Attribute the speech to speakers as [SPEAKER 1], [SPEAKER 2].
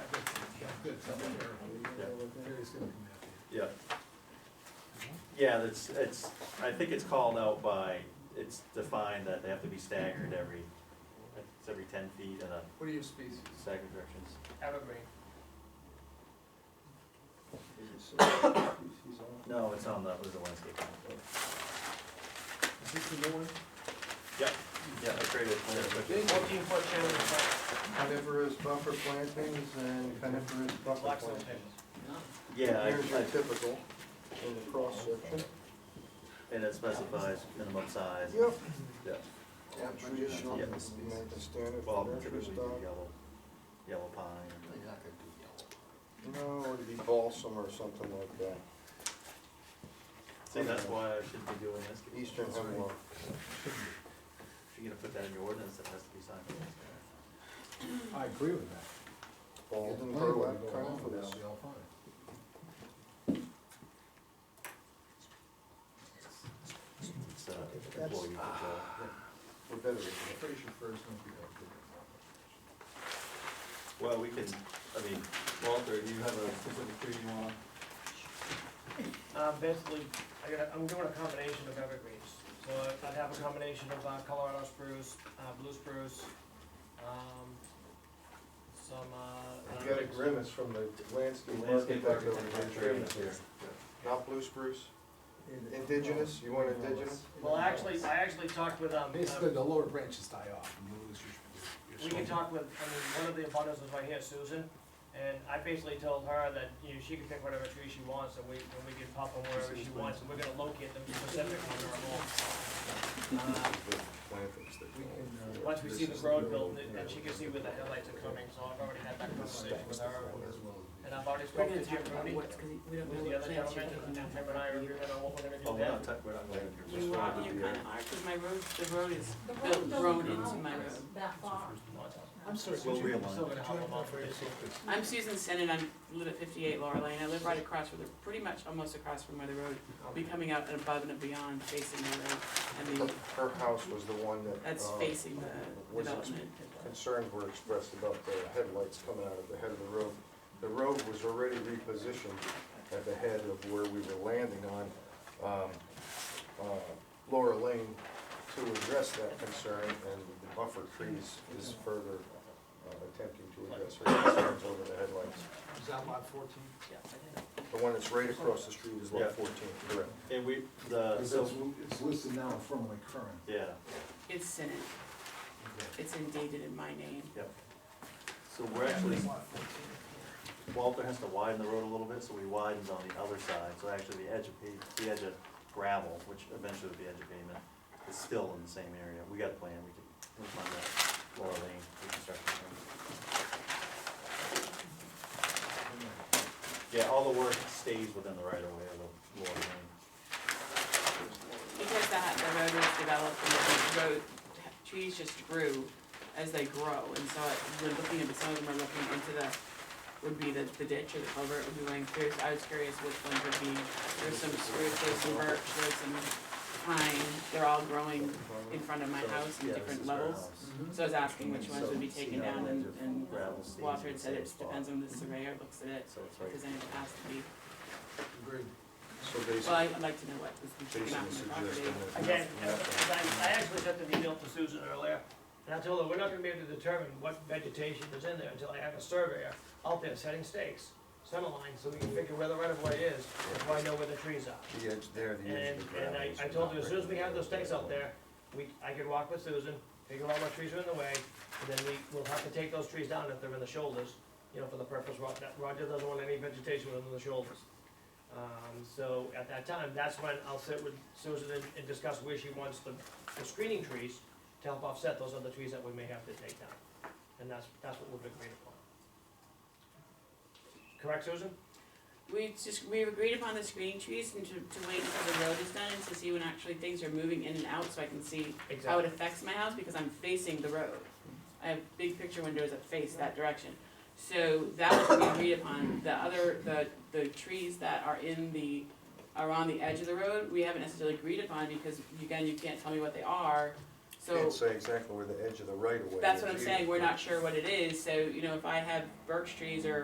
[SPEAKER 1] something terrible.
[SPEAKER 2] Gary's gonna come after you.
[SPEAKER 1] Yeah. Yeah, that's, it's, I think it's called out by, it's defined that they have to be staggered every, it's every ten feet in a
[SPEAKER 3] What are your species?
[SPEAKER 1] staggered directions.
[SPEAKER 3] Evergreen.
[SPEAKER 1] No, it's on the, it was the landscape plan.
[SPEAKER 2] Is this the new one?
[SPEAKER 1] Yep, yeah, I created a plan.
[SPEAKER 3] Fourteen foot channel.
[SPEAKER 4] Coniferous buffer plantings and coniferous buffer plantings.
[SPEAKER 1] Yeah, I,
[SPEAKER 4] Here's your
[SPEAKER 1] I,
[SPEAKER 4] typical in the cross section.
[SPEAKER 1] and it specifies minimum size.
[SPEAKER 4] Yep.
[SPEAKER 1] Yeah,
[SPEAKER 4] And traditional, you
[SPEAKER 1] Yeah.
[SPEAKER 4] know, the standard
[SPEAKER 1] well,
[SPEAKER 4] nursery
[SPEAKER 1] typically do
[SPEAKER 4] stock.
[SPEAKER 1] yellow, yellow pine.
[SPEAKER 4] No, it'd be balsam or something like that,
[SPEAKER 1] See, that's why I should be doing this.
[SPEAKER 4] eastern hemlock.
[SPEAKER 1] If you're gonna put that in your ordinance, it has to be signed.
[SPEAKER 2] I agree with that.
[SPEAKER 4] Walden burlap coniferous.
[SPEAKER 1] It's, uh, employee control.
[SPEAKER 4] We're better
[SPEAKER 2] I'm
[SPEAKER 4] with
[SPEAKER 2] pretty sure Fred's gonna be up to
[SPEAKER 1] Well, we can, I mean, Walter, do you have a specific tree you wanna?
[SPEAKER 3] Uh, basically, I got, I'm doing a combination of evergreens, so I- I'd have a combination of uh, Colorado spruce, uh, blue spruce, um, some, uh.
[SPEAKER 4] it. You got a grimace from the landscape
[SPEAKER 1] Landscape
[SPEAKER 4] architect over
[SPEAKER 1] architect.
[SPEAKER 4] here. Not blue spruce,
[SPEAKER 2] that.
[SPEAKER 4] indigenous, you want indigenous?
[SPEAKER 3] Well, actually, I actually talked with, um, uh,
[SPEAKER 2] Basically, the lower branches die off and you lose your- your.
[SPEAKER 3] we can
[SPEAKER 2] soil.
[SPEAKER 3] talk with, I mean, one of the abundance was right here, Susan, and I basically told her that, you know, she can pick whatever tree she wants, and we, and we can pop them wherever she wants, and we're gonna locate them specifically on our home. Uh,
[SPEAKER 4] Plantings that-
[SPEAKER 2] We can, uh,
[SPEAKER 3] Once we see the
[SPEAKER 2] this is
[SPEAKER 3] road
[SPEAKER 2] new,
[SPEAKER 3] built,
[SPEAKER 2] you know,
[SPEAKER 3] and she can see where the headlights are coming, so I've already had that
[SPEAKER 2] this
[SPEAKER 3] conversation with
[SPEAKER 2] stacks
[SPEAKER 3] her.
[SPEAKER 2] the as well as
[SPEAKER 3] And
[SPEAKER 2] the-
[SPEAKER 3] I've already
[SPEAKER 5] We're
[SPEAKER 3] spoken
[SPEAKER 5] gonna
[SPEAKER 3] to Jim
[SPEAKER 5] talk about
[SPEAKER 3] Rooney,
[SPEAKER 5] what's, 'cause we don't
[SPEAKER 3] who's the
[SPEAKER 5] know what
[SPEAKER 3] other
[SPEAKER 5] plans
[SPEAKER 3] gentleman,
[SPEAKER 5] you're
[SPEAKER 3] and
[SPEAKER 5] gonna have.
[SPEAKER 3] Jim and I are agreeing on what we're gonna
[SPEAKER 1] Oh, we're
[SPEAKER 3] do then.
[SPEAKER 1] not, tou- we're not going to.
[SPEAKER 5] You are, you kinda are, cause my road, the road is built, grown into my road.
[SPEAKER 6] That far.
[SPEAKER 2] I'm sorry,
[SPEAKER 1] We'll
[SPEAKER 2] could you, could
[SPEAKER 1] realign.
[SPEAKER 3] Still
[SPEAKER 2] you
[SPEAKER 3] gonna help
[SPEAKER 2] have
[SPEAKER 3] them out
[SPEAKER 2] that for
[SPEAKER 3] with this.
[SPEAKER 2] yourself?
[SPEAKER 5] I'm Susan Sennin, I live at fifty-eight Laurel Lane, I live right across from the, pretty much almost across from where the road, will be coming out and above and beyond facing the road, and the,
[SPEAKER 4] Her house was the one that.
[SPEAKER 5] that's
[SPEAKER 4] uh,
[SPEAKER 5] facing the
[SPEAKER 4] was
[SPEAKER 5] development.
[SPEAKER 4] concerns were expressed about the headlights coming out of the head of the road. The road was already repositioned at the head of where we were landing on um, uh, Laura Lane to address that concern, and the buffer trees is further uh, attempting to address her concerns over the headlights.
[SPEAKER 2] Is that lot fourteen?
[SPEAKER 4] The one that's right across the street is
[SPEAKER 1] Yeah.
[SPEAKER 4] lot 14, correct?
[SPEAKER 1] And we, the,
[SPEAKER 2] Because
[SPEAKER 1] so,
[SPEAKER 2] it's, it's listed now in front of my current.
[SPEAKER 1] yeah,
[SPEAKER 5] It's Sennin, it's indeed in my name.
[SPEAKER 1] yep. So we're actually,
[SPEAKER 2] Lot 14.
[SPEAKER 1] Walter has to widen the road a little bit, so he widens on the other side, so actually the edge of pa, the edge of gravel, which eventually would be edge of pavement, is still in the same area. We got a plan, we can, we'll find that, Laura Lane, we can start. the plan. Yeah, all the work stays within the right of way of the Laura Lane.
[SPEAKER 5] Because the, the road was developed and the road, trees just grew as they grow, and so it- we're looking at, some of them are looking into the, would be the, the ditch or the culvert would be going through, so I was curious which ones would be, there's some spruce, there's some birch, there's some pine, they're all growing in front of my
[SPEAKER 1] So,
[SPEAKER 5] house in
[SPEAKER 1] yeah, this is
[SPEAKER 5] different
[SPEAKER 1] her
[SPEAKER 5] levels.
[SPEAKER 1] house.
[SPEAKER 3] Mm-hmm.
[SPEAKER 5] So I was asking which ones would be taken down, and, and
[SPEAKER 1] Gravel stays in
[SPEAKER 5] Walter
[SPEAKER 1] the
[SPEAKER 5] had said
[SPEAKER 1] same
[SPEAKER 5] it
[SPEAKER 1] spot.
[SPEAKER 5] depends on the surveyor looks at it,
[SPEAKER 1] So it's right.
[SPEAKER 5] because then it has to be,
[SPEAKER 2] Agreed.
[SPEAKER 4] So
[SPEAKER 5] well,
[SPEAKER 4] basically,
[SPEAKER 5] I'd like to know what was taken
[SPEAKER 4] basically
[SPEAKER 5] out from the
[SPEAKER 4] suggesting
[SPEAKER 5] property.
[SPEAKER 4] that.
[SPEAKER 3] Again, I, I actually sent the email to Susan earlier, and I told her, we're not gonna be able to determine what vegetation is in there until I have a surveyor out there setting stakes, center lines, so we can figure where the right of way is, and so I know where the trees are.
[SPEAKER 4] The edge there, the edge
[SPEAKER 3] And,
[SPEAKER 4] of the
[SPEAKER 3] and
[SPEAKER 4] gravel.
[SPEAKER 3] I,
[SPEAKER 4] is
[SPEAKER 3] I told
[SPEAKER 4] not
[SPEAKER 3] her, as soon as we have those stakes out
[SPEAKER 4] regulated.
[SPEAKER 3] there, we, I could walk with Susan, figure out what trees are in the way, and then we, we'll have to take those trees down if they're in the shoulders, you know, for the purpose, Ro- that- Roger doesn't want any vegetation within the shoulders. Um, so at that time, that's when I'll sit with Susan and, and discuss where she wants the, the screening trees to help offset those other trees that we may have to take down. And that's, that's what we've agreed upon. Correct, Susan?
[SPEAKER 5] We just, we agreed upon the screening trees and to, to wait until the road is done and to see when actually things are moving in and out so I can see how it affects my house because I'm facing the road. I have big picture windows that face that direction. So that was what we agreed upon. The other, the, the trees that are in the, are on the edge of the road, we haven't necessarily agreed upon because again, you can't tell me what they are. So
[SPEAKER 4] Can't say exactly where the edge of the right of way is.
[SPEAKER 5] that's what I'm
[SPEAKER 4] either.
[SPEAKER 5] saying, we're not sure what it is, so, you know, if I have birch trees or